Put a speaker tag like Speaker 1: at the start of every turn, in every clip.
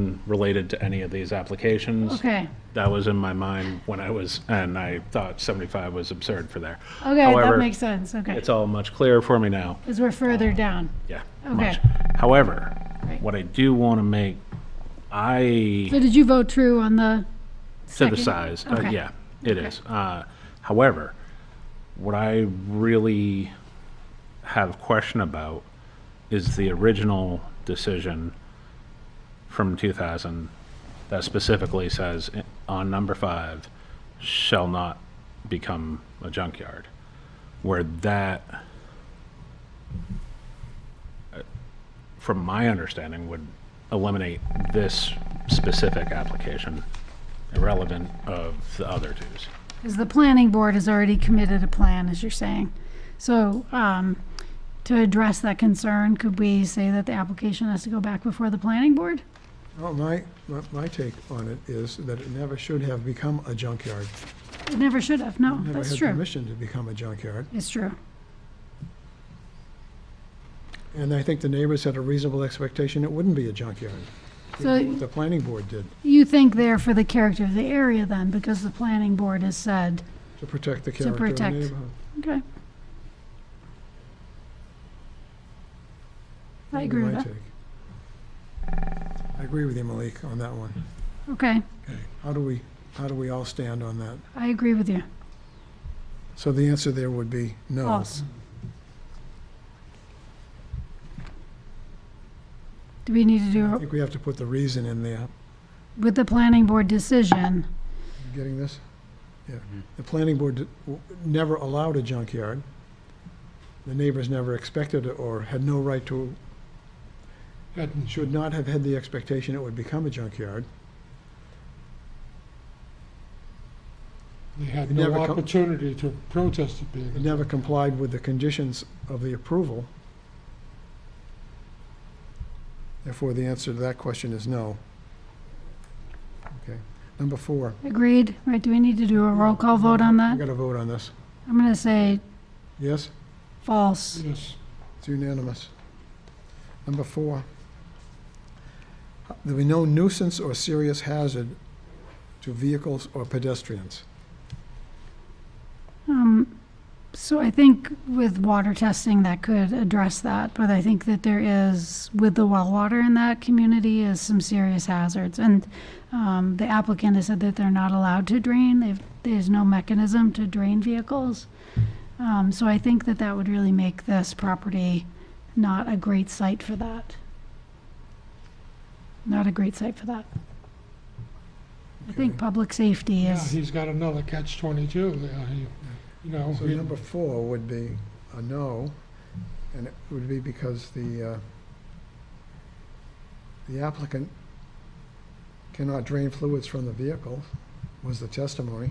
Speaker 1: unrelated to any of these applications.
Speaker 2: Okay.
Speaker 1: That was in my mind when I was, and I thought 75 was absurd for there.
Speaker 2: Okay, that
Speaker 1: However,
Speaker 2: makes sense, okay.
Speaker 1: It's all much clearer for me now.
Speaker 2: Because we're further down.
Speaker 1: Yeah.
Speaker 2: Okay.
Speaker 1: much. However,
Speaker 2: Right.
Speaker 1: what I do want to make, I
Speaker 2: So did you vote true on the,
Speaker 1: to the
Speaker 2: Second.
Speaker 1: size, uh,
Speaker 2: Okay.
Speaker 1: yeah, it is. Uh, however, what I really have question about is the original decision from 2000 that specifically says i- on number five shall not become a junkyard, where that, uh, from my understanding, would eliminate this specific application irrelevant of the other twos.
Speaker 2: because the planning board has already committed a plan, as you're saying. So, um, to address that concern, could we say that the application has to go back before the planning board?
Speaker 3: Well, my, my- my take on it is that it never should have become a junkyard.
Speaker 2: It never should have, no, that's
Speaker 3: Never had
Speaker 2: true.
Speaker 3: permission to become a junkyard.
Speaker 2: It's true.
Speaker 3: And I think the neighbors had a reasonable expectation it wouldn't be a junkyard.
Speaker 2: So
Speaker 3: The planning board did,
Speaker 2: you think there for the character of the area then, because the planning board has said,
Speaker 3: to protect the character of the
Speaker 2: protect.
Speaker 3: neighborhood.
Speaker 2: okay. I
Speaker 3: That'd be
Speaker 2: agree with
Speaker 3: my
Speaker 2: that.
Speaker 3: take. I agree with you, Malik, on that one.
Speaker 2: Okay,
Speaker 3: Okay, how do we, how do we all stand on that?
Speaker 2: I agree with you.
Speaker 3: So the answer there would be no.
Speaker 2: False. Do we need to
Speaker 3: I
Speaker 2: do,
Speaker 3: think we have to put the reason in there.
Speaker 2: with the planning board decision,
Speaker 3: You Getting this? Yeah. The planning board d- w- never allowed a junkyard. The neighbors never expected it or had no right to, should not have had the expectation it would become a junkyard.
Speaker 4: They had
Speaker 3: It
Speaker 4: no
Speaker 3: never co-
Speaker 4: opportunity to protest it
Speaker 3: It
Speaker 4: being.
Speaker 3: never complied with the conditions of the approval. Therefore, the answer to that question is no. Okay. Number four.
Speaker 2: agreed, right, do we need to do a roll call vote on
Speaker 3: We
Speaker 2: that?
Speaker 3: got to vote on this.
Speaker 2: I'm gonna say
Speaker 3: Yes?
Speaker 2: false.
Speaker 4: Yes,
Speaker 3: It's unanimous. Number four, there be no nuisance or serious hazard to vehicles or pedestrians.
Speaker 2: Um, so I think with water testing, that could address that, but I think that there is, with the well water in that community, is some serious hazards. And, um, the applicant has said that they're not allowed to drain, they've, there's no mechanism to drain vehicles. Um, so I think that that would really make this property not a great site for that. Not a great site for that. I think
Speaker 3: Okay.
Speaker 2: public safety
Speaker 4: yeah,
Speaker 2: is,
Speaker 4: he's got another catch twenty-two there, he, you know.
Speaker 3: So
Speaker 4: he-
Speaker 3: number four would be a no, and it would be because the, uh, the applicant cannot drain fluids from the vehicle, was the testimony.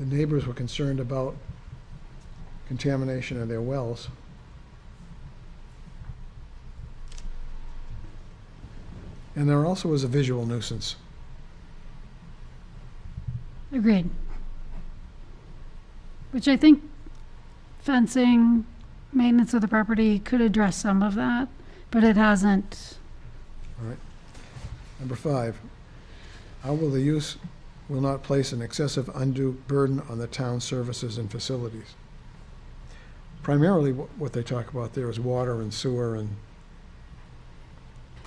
Speaker 3: The neighbors were concerned about contamination of their wells. And there also is a visual nuisance.
Speaker 2: Agreed. Which I think fencing, maintenance of the property could address some of that, but it hasn't.
Speaker 3: Number five, how will the use will not place an excessive undue burden on the town's services and facilities? Primarily, wh- what they talk about there is water and sewer and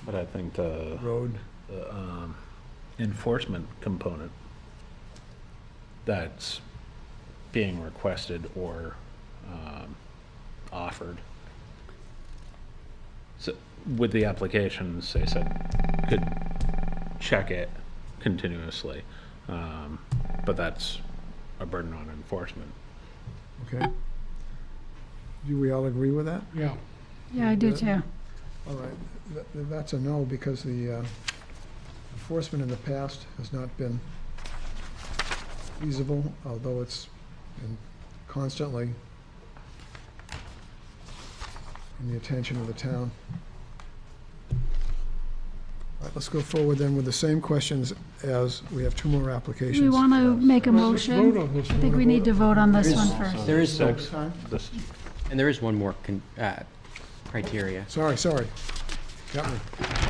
Speaker 1: But I think the
Speaker 3: road.
Speaker 1: the, um, enforcement component that's being requested or um, offered. So with the applications, they said could check it continuously, um, but that's a burden on enforcement.
Speaker 3: Okay? Do we all agree with that?
Speaker 4: Yeah,
Speaker 2: Yeah, I do
Speaker 3: Yeah.
Speaker 2: too.
Speaker 3: All right, th- th- that's a no because the uh, enforcement in the past has not been feasible, although it's been constantly in the attention of the town. All right, let's go forward then with the same questions as, we have two more applications.
Speaker 2: Do we want to make a
Speaker 4: Let's vote
Speaker 2: motion?
Speaker 4: on this
Speaker 2: I think
Speaker 4: one.
Speaker 2: we need to vote on this one first.
Speaker 5: There is some,
Speaker 1: Six.
Speaker 3: Time?
Speaker 1: This-
Speaker 5: and there is one more con- uh, criteria.
Speaker 3: Sorry, sorry. Got me.